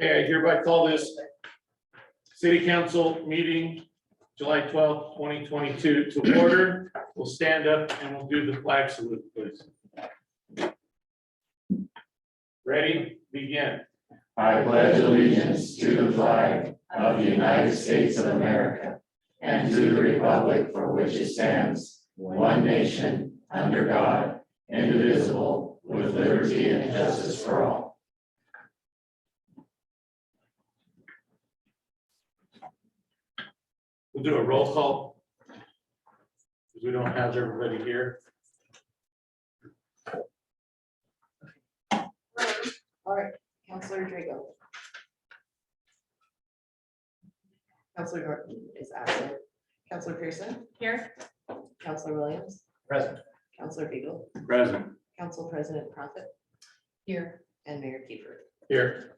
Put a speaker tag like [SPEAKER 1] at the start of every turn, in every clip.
[SPEAKER 1] Okay, I hereby call this city council meeting, July twelfth, twenty twenty-two to order. We'll stand up and we'll do the flag salute, please. Ready, begin.
[SPEAKER 2] I pledge allegiance to the flag of the United States of America and to the republic for which it stands, one nation, under God, indivisible, with liberty and justice for all.
[SPEAKER 1] We'll do a roll call. Because we don't have everybody here.
[SPEAKER 3] All right, Counselor Drago. Counselor Norton is absent. Counselor Pearson,
[SPEAKER 4] Here,
[SPEAKER 3] Counselor Williams.
[SPEAKER 1] Present.
[SPEAKER 3] Counselor Beagle,
[SPEAKER 1] Present.
[SPEAKER 3] Council President Prophet. Here. And Mayor Kiefer.
[SPEAKER 1] Here.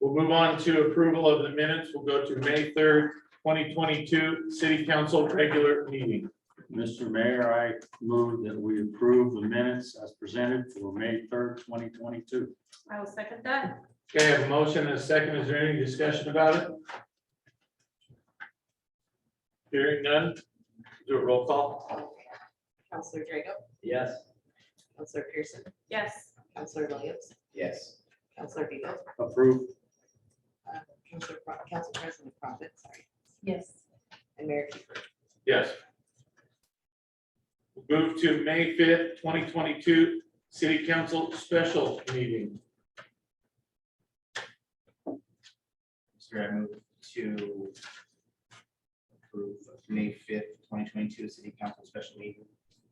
[SPEAKER 1] We'll move on to approval of the minutes. We'll go to May third, twenty twenty-two, city council regular meeting.
[SPEAKER 5] Mr. Mayor, I move that we approve the minutes as presented for May third, twenty twenty-two.
[SPEAKER 4] I will second that.
[SPEAKER 1] Okay, I have a motion and a second. Is there any discussion about it? Hearing none, do a roll call.
[SPEAKER 3] Counselor Drago,
[SPEAKER 5] Yes.
[SPEAKER 3] Counselor Pearson,
[SPEAKER 4] Yes,
[SPEAKER 3] Counselor Williams,
[SPEAKER 2] Yes.
[SPEAKER 3] Counselor Beagle,
[SPEAKER 5] Approved.
[SPEAKER 3] uh, Counselor, Pro- Council President Prophet, sorry. Yes. And Mayor Kiefer.
[SPEAKER 1] Yes. We'll Move to May fifth, twenty twenty-two, city council special meeting.
[SPEAKER 2] Mr. I move to approve May fifth, twenty twenty-two, city council special meeting.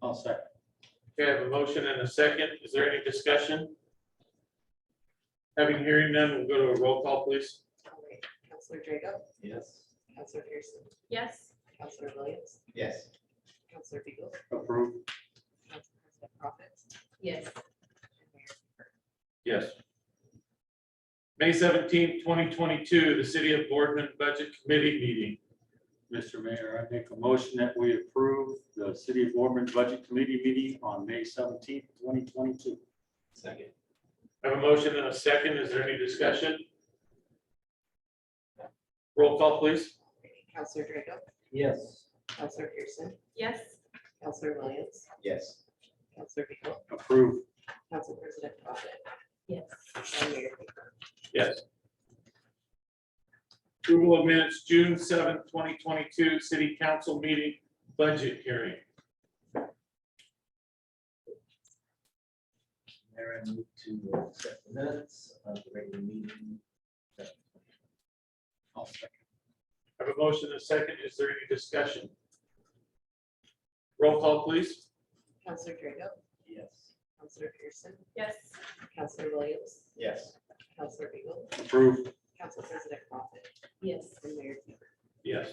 [SPEAKER 5] I'll second.
[SPEAKER 1] Okay, I have a motion and a second. Is there any discussion? Having hearing none, we'll go to a roll call, please.
[SPEAKER 3] All right, Counselor Drago,
[SPEAKER 2] Yes.
[SPEAKER 3] Counselor Pearson,
[SPEAKER 4] yes,
[SPEAKER 3] Counselor Williams,
[SPEAKER 2] Yes.
[SPEAKER 3] Counselor Beagle,
[SPEAKER 5] Approved.
[SPEAKER 3] Council President Prophet.
[SPEAKER 4] yes,
[SPEAKER 3] and Mayor
[SPEAKER 1] Yes. May seventeenth, twenty twenty-two, the City of Boardman Budget Committee meeting.
[SPEAKER 5] Mr. Mayor, I make a motion that we approve the City of Ormond Budget Committee meeting on May seventeenth, twenty twenty-two.
[SPEAKER 2] Second.
[SPEAKER 1] I have a motion and a second. Is there any discussion? Roll call, please.
[SPEAKER 3] Counselor Drago,
[SPEAKER 2] Yes.
[SPEAKER 3] Counselor Pearson,
[SPEAKER 4] yes,
[SPEAKER 3] Counselor Williams,
[SPEAKER 2] Yes.
[SPEAKER 3] Counselor Beagle,
[SPEAKER 5] Approved.
[SPEAKER 3] Council President Prophet,
[SPEAKER 4] yes.
[SPEAKER 3] and Mayor Kiefer.
[SPEAKER 1] Yes. Approval of minutes, June seventh, twenty twenty-two, City Council meeting budget hearing.
[SPEAKER 2] Mayor, I move to accept the minutes of the regular meeting.
[SPEAKER 5] I'll second.
[SPEAKER 1] I have a motion and a second. Is there any discussion? Roll call, please.
[SPEAKER 3] Counselor Drago,
[SPEAKER 2] Yes.
[SPEAKER 3] Counselor Pearson,
[SPEAKER 4] Yes,
[SPEAKER 3] Counselor Williams,
[SPEAKER 2] Yes.
[SPEAKER 3] Counselor Beagle,
[SPEAKER 5] Approved.
[SPEAKER 3] Council President Prophet,
[SPEAKER 4] yes,
[SPEAKER 3] and Mayor Kiefer.
[SPEAKER 1] Yes.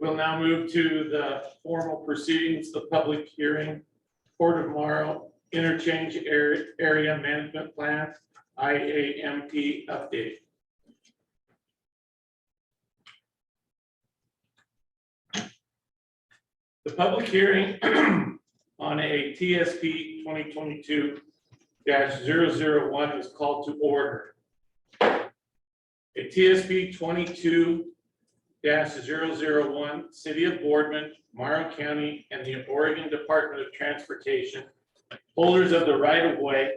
[SPEAKER 1] We'll now move to the formal proceedings, the public hearing, Port of Morrow Interchange Area Area Management Plan, IAMP update. The public hearing on a TSP twenty twenty-two one is called to order. A TSB twenty-two one City of Boardman, Morrow County, and the Oregon Department of Transportation, holders of the right-of-way,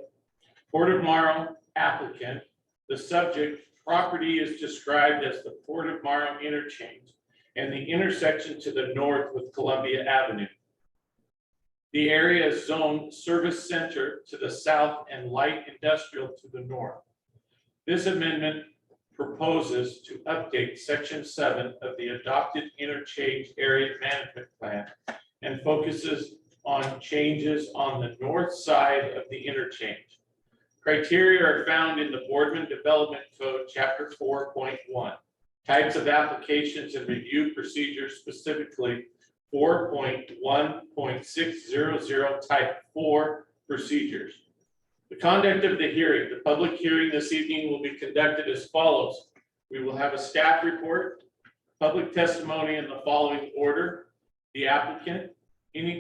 [SPEAKER 1] Port of Morrow applicant, the subject property is described as the Port of Morrow interchange and the intersection to the north with Columbia Avenue. The area is zoned service center to the south and light industrial to the north. This amendment proposes to update section seven of the adopted interchange area management plan and focuses on changes on the north side of the interchange. Criteria are found in the Boardman Development Code, chapter four point one. Types of applications and review procedures specifically four point one point six zero zero type four procedures. The conduct of the hearing, the public hearing this evening will be conducted as follows. We will have a staff report, public testimony in the following order. The applicant, any